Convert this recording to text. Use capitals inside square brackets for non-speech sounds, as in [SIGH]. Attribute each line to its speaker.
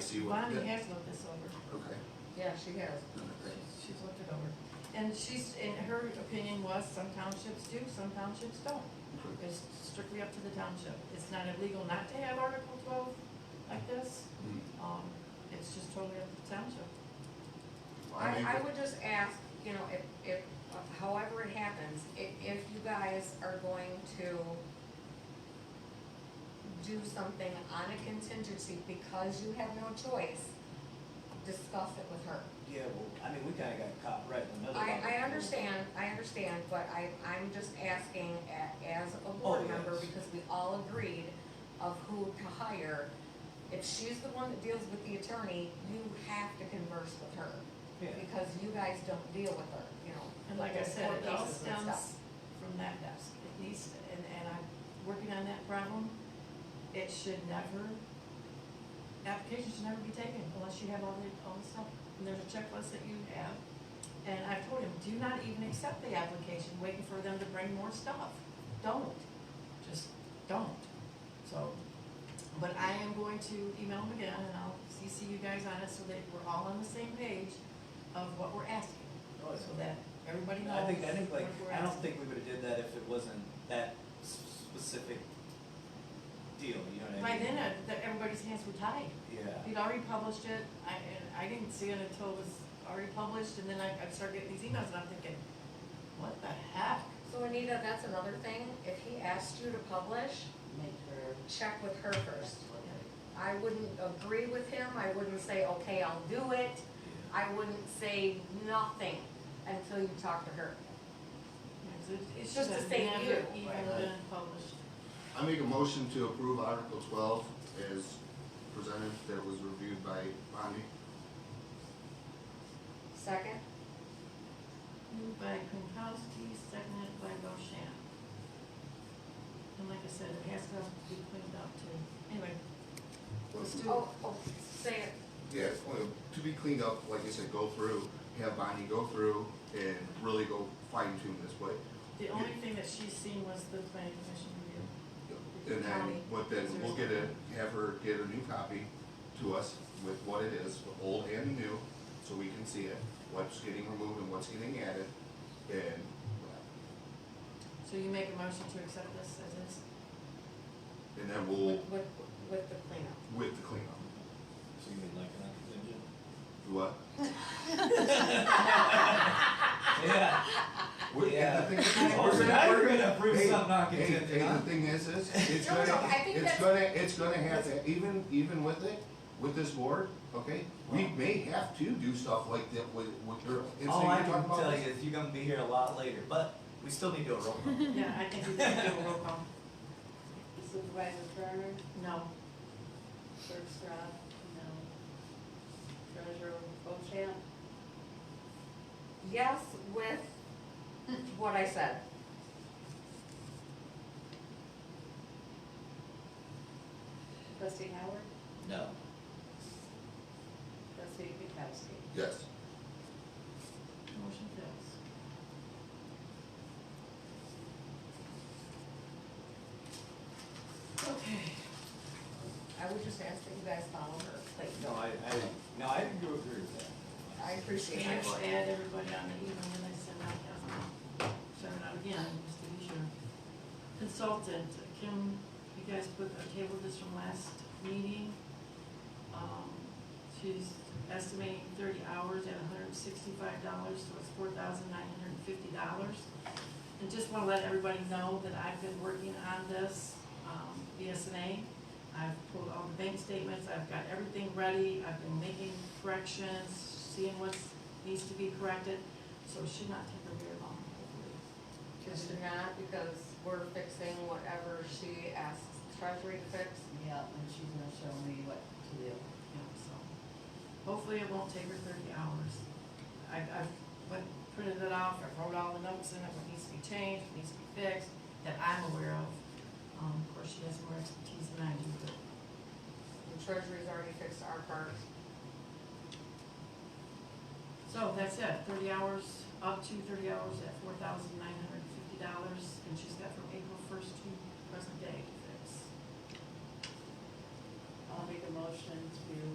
Speaker 1: see what.
Speaker 2: Bonnie has looked this over,
Speaker 1: Okay.
Speaker 2: yeah, she has, she's looked it over. And she's, and her opinion was some townships do, some townships don't. It's strictly up to the township. It's not illegal not to have Article twelve like this,
Speaker 3: Mm.
Speaker 1: Hmm.
Speaker 2: um, it's just totally up to the township.
Speaker 1: mean,
Speaker 3: I, I
Speaker 1: but-
Speaker 3: would just ask, you know, if, if, however it happens, if, if you guys are going to do something on a contingency because you have no choice, discuss it with her.
Speaker 4: Yeah, well, I mean, we kinda got caught right in the middle of
Speaker 3: I,
Speaker 4: it.
Speaker 3: I understand, I understand, but I, I'm just asking a- as a
Speaker 4: Oh,
Speaker 3: board member,
Speaker 4: yes.
Speaker 3: because we all agreed of who to hire. If she's the one that deals with the attorney, you have to converse with her,
Speaker 4: Yeah,
Speaker 3: because you guys don't deal with her, you know.
Speaker 2: And like I
Speaker 3: with
Speaker 2: said,
Speaker 3: court
Speaker 2: it all
Speaker 3: cases and stuff.
Speaker 2: stems from that desk, at least, and, and I'm working on that problem. It should never, application should never be taken unless you have all the, all the stuff. And there's a checklist that you have, and I've told him, do not even accept the application, waiting for them to bring more stuff. Don't, just don't. So, but I am going to email them again, and I'll CC you guys on it so that we're all on the same page of what we're asking
Speaker 4: Oh,
Speaker 2: so
Speaker 4: yeah.
Speaker 2: that everybody knows.
Speaker 4: I think, I think like,
Speaker 2: what we're
Speaker 4: I don't
Speaker 2: asking.
Speaker 4: think we would've did that if it wasn't that s- specific deal, you know what I
Speaker 2: By
Speaker 4: mean?
Speaker 2: then, uh, the- everybody's hands were tied.
Speaker 4: Yeah,
Speaker 2: We'd already published it, I, and I didn't see it until it was already published, and then I, I started getting these emails, and I'm thinking, what the heck?
Speaker 3: So Anita, that's another thing, if he asked you to publish,
Speaker 5: make her.
Speaker 3: check with her first. I wouldn't agree with him, I wouldn't say, okay, I'll do it,
Speaker 4: yeah.
Speaker 3: I wouldn't say nothing until you talk to her.
Speaker 2: It's- It's
Speaker 3: Just
Speaker 2: just
Speaker 3: to
Speaker 2: never
Speaker 3: save you.
Speaker 2: even been published.
Speaker 1: I make a motion to approve Article twelve as presented, that was reviewed by Bonnie.
Speaker 3: Second?
Speaker 2: Moved by Pinkowski, seconded by Bochamp. And like I said, it has to be cleaned up too. Anyway, let's do it.
Speaker 3: Oh, oh, say it.
Speaker 1: Yeah, well, to be cleaned up, like I said, go through, have Bonnie go through and really go fine tune this way.
Speaker 2: The only thing that she's seen was the planning commission review.
Speaker 1: And then,
Speaker 2: County.
Speaker 1: what then, we'll get a, have her get a new copy to us with what it is, the old and new, so we can see it, what's getting removed and what's getting added, and.
Speaker 2: So you make a motion to accept this as is?
Speaker 1: And then
Speaker 3: With,
Speaker 1: we'll,
Speaker 3: with, with the cleanup.
Speaker 1: with the cleanup,
Speaker 4: So you mean like an
Speaker 3: [LAUGHS]
Speaker 4: contingent?
Speaker 1: what?
Speaker 4: [LAUGHS] Yeah.
Speaker 1: We're,
Speaker 4: Yeah.
Speaker 1: and the thing is,
Speaker 4: Oh,
Speaker 1: we're
Speaker 4: so
Speaker 1: gonna-
Speaker 4: now you're
Speaker 1: we're
Speaker 4: gonna approve
Speaker 1: hey,
Speaker 4: something not
Speaker 1: hey,
Speaker 4: contingent,
Speaker 1: hey,
Speaker 4: huh?
Speaker 1: the thing is, is,
Speaker 3: [LAUGHS]
Speaker 1: it's
Speaker 3: No, no,
Speaker 1: gonna,
Speaker 3: I think
Speaker 1: it's
Speaker 3: that's-
Speaker 1: gonna, it's gonna have to, even, even with it, with this board, okay? We may have to do stuff like that with, with your, it's
Speaker 4: All I
Speaker 1: like
Speaker 4: can
Speaker 1: you're talking
Speaker 4: tell you
Speaker 1: about.
Speaker 4: is you're gonna be here a lot later, but we still need to do a roll
Speaker 1: [LAUGHS]
Speaker 4: call.
Speaker 2: Yeah, I think we can do a roll call.
Speaker 5: Supervisor Turner,
Speaker 2: No.
Speaker 5: clerk Strad, no. Treasurer Bochamp,
Speaker 3: Yes, with what I said.
Speaker 5: trustee Howard,
Speaker 4: No.
Speaker 5: trustee Pankowski.
Speaker 1: Yes,
Speaker 2: Motion fails. Okay.
Speaker 3: I would just ask that you guys follow her, please.
Speaker 4: No, I, I, no, I do agree with that.
Speaker 3: I appreciate
Speaker 2: And
Speaker 3: it.
Speaker 2: I'll add everybody on the email when I send out, um, send it out again, just to be sure. Consultant, Kim, you guys put, I tabled this from last meeting. Um, she's estimating thirty hours at hundred and sixty-five dollars, so it's four thousand nine hundred and fifty dollars. And just wanna let everybody know that I've been working on this, um, BSNA. I've pulled all the bank statements, I've got everything ready, I've been making corrections, seeing what needs to be corrected, so it should not take her very long, hopefully.
Speaker 3: Just not because we're fixing whatever she asks treasury to fix.
Speaker 5: Yeah, and she's gonna show me what to do.
Speaker 2: you know, so. Hopefully it won't take her thirty hours. I, I've went, printed it off, I wrote all the notes in it, what needs to be changed, what needs to be fixed, that I'm aware of. Um, of course, she has more expertise than I do, but
Speaker 3: The treasury's already fixed our part.
Speaker 2: So that's it, thirty hours, up to thirty hours at four thousand nine hundred and fifty dollars, and she's got from April first to present day to fix.
Speaker 5: I'll make a motion to